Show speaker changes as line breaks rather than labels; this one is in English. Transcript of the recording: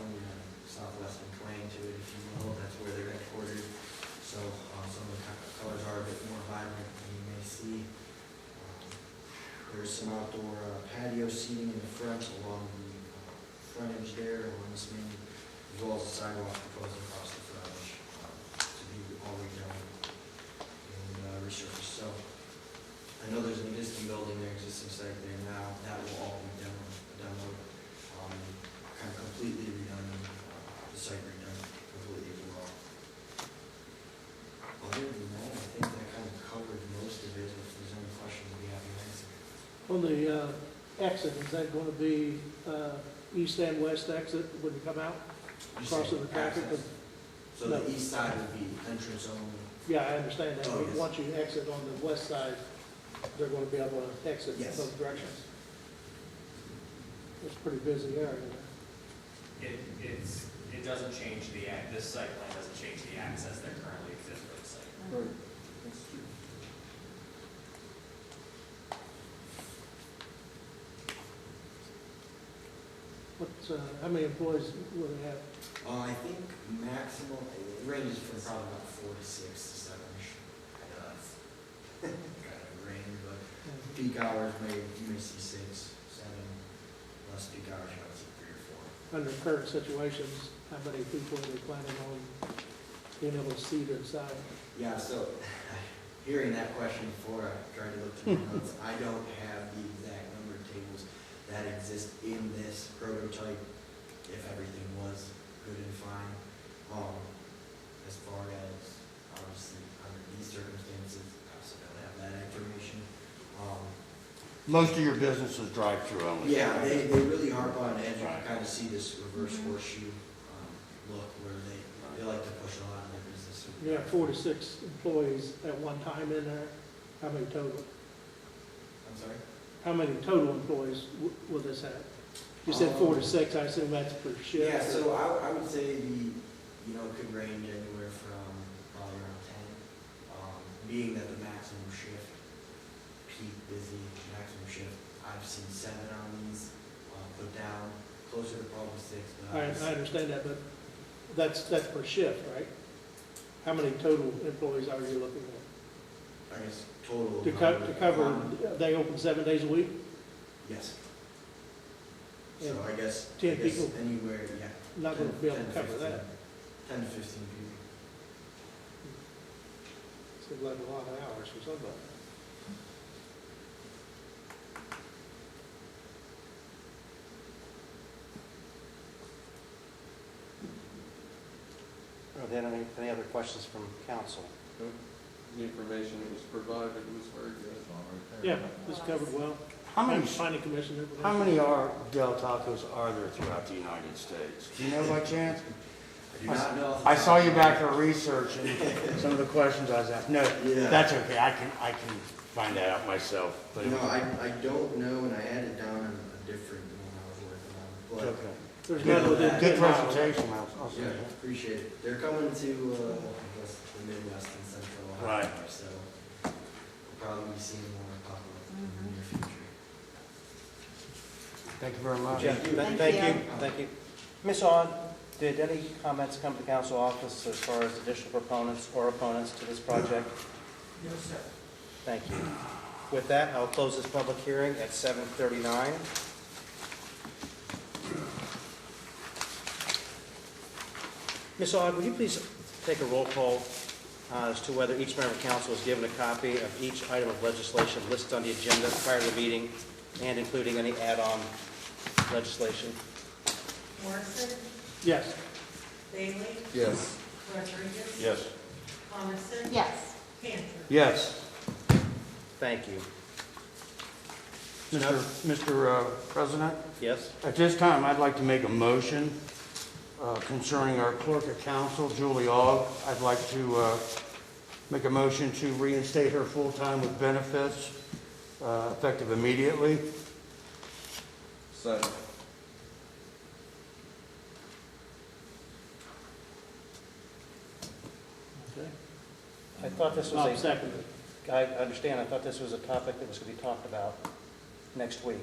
um, Um, seam uh, in the front along the uh, frontage there, along this main, as well as the sidewalk that goes across the frontage uh, to be all redone and uh, resurfaced. So I know there's an existing building there, existing site there now, that will all be demo, demo, um, kind of completely redone, uh, the site redone completely as well. Other than that, I think that kind of covered most of it, if there's any questions we have to answer.
On the uh, exit, is that going to be uh, east and west exit when you come out? Crossing the traffic,
Access. So the east side would be entrance only.
Yeah, I understand that.
Oh, yes.
Once you exit on the west side, they're going to be able to exit in
Yes.
both directions. It's a pretty busy area.
It, it's, it doesn't change the, ac- this site plan doesn't change the access that currently exists for the site.
What's, uh, how many employees will they have?
Uh, I think maximum, it ranges from probably about four to six to seven-ish. I know that's kind of range, but
uh,
peak hours may, you may see six, seven, less peak hours, you might see three or four.
Under current situations, how many people are they planning on being able to seat inside?
Yeah, so hearing that question before, I tried to look through my notes. I don't have the exact number of tables that exist in this prototype, if everything was good and fine. Um, as far as, obviously, under these circumstances, I also don't have that information. Um,
Most of your business is drive-through only.
yeah, they, they really harp on edge, you can
Right.
kind of see this reverse horseshoe, um, look where they, they like to push a lot of their business.
You have forty-six employees at one time in there. How many total?
I'm sorry?
How many total employees w- will this have? You said four to six, I assume that's per shift.
Yeah, so I, I would say the, you know, it could range anywhere from probably around ten, um, being that the maximum shift, peak busy, maximum shift, I've seen seven on these, uh, put down, closer to probably six,
I,
but
I
I was-
understand that, but that's, that's per shift, right? How many total employees are you looking at?
I guess total.
To co, to
probably-
cover,
um,
they open seven days a week,
Yes.
And
So I guess, I
10
guess
people.
anywhere, yeah.
not gonna
10
be able to
10
cover that.
15 Ten to fifteen people.
Seems like a lot of hours for somebody.
Are there any, any other questions from council?
The information that was provided was very good.
Yeah, it's covered well.
How many,
Finding commission information.
how many are Del Tacos are there throughout the United States? Do you know by chance?
I do not know. off the
I
top
saw
of
you
my
back
head.
there researching some of the questions I was asking. No,
Yeah.
that's okay, I can, I can find that out myself. but-
No, I, I don't know, and I had it down on a different one I was working on,
Okay.
There's
Yeah.
none within
Good
ten miles.
presentation, I'll, I'll
but,
say
yeah,
that.
appreciate it. They're coming to, uh, I guess, the Midwest and Central Ohio, so we'll probably be seeing more pop up in the near future.
Thank you very much.
Yeah, th-
Thank
thank
you.
you, thank you. Ms. On, did any comments come to council office as far as additional proponents or opponents to this project?
No, sir.
Thank you. With that, I'll close this public hearing at 7:39. Ms. Aug, would you please take a roll call uh, as to whether each member of council is given a copy of each item of legislation listed on the agenda prior to the meeting and including any add-on legislation?
Morrison,
Yes,
Bailey,
Yes.
Rodriguez.
Yes.
Coniston.
Yes.
Cantor.
Yes.
Thank you.
Mr. Mr. uh, President?
Yes?
At this time, I'd like to make a motion uh, concerning our clerk of council, Julie Aug. I'd like to uh, make a motion to reinstate her full-time with benefits uh, effective immediately.
Second.
I thought this
Bob
was a,
seconded.
I understand, I thought this was a topic that was going to be talked about next week.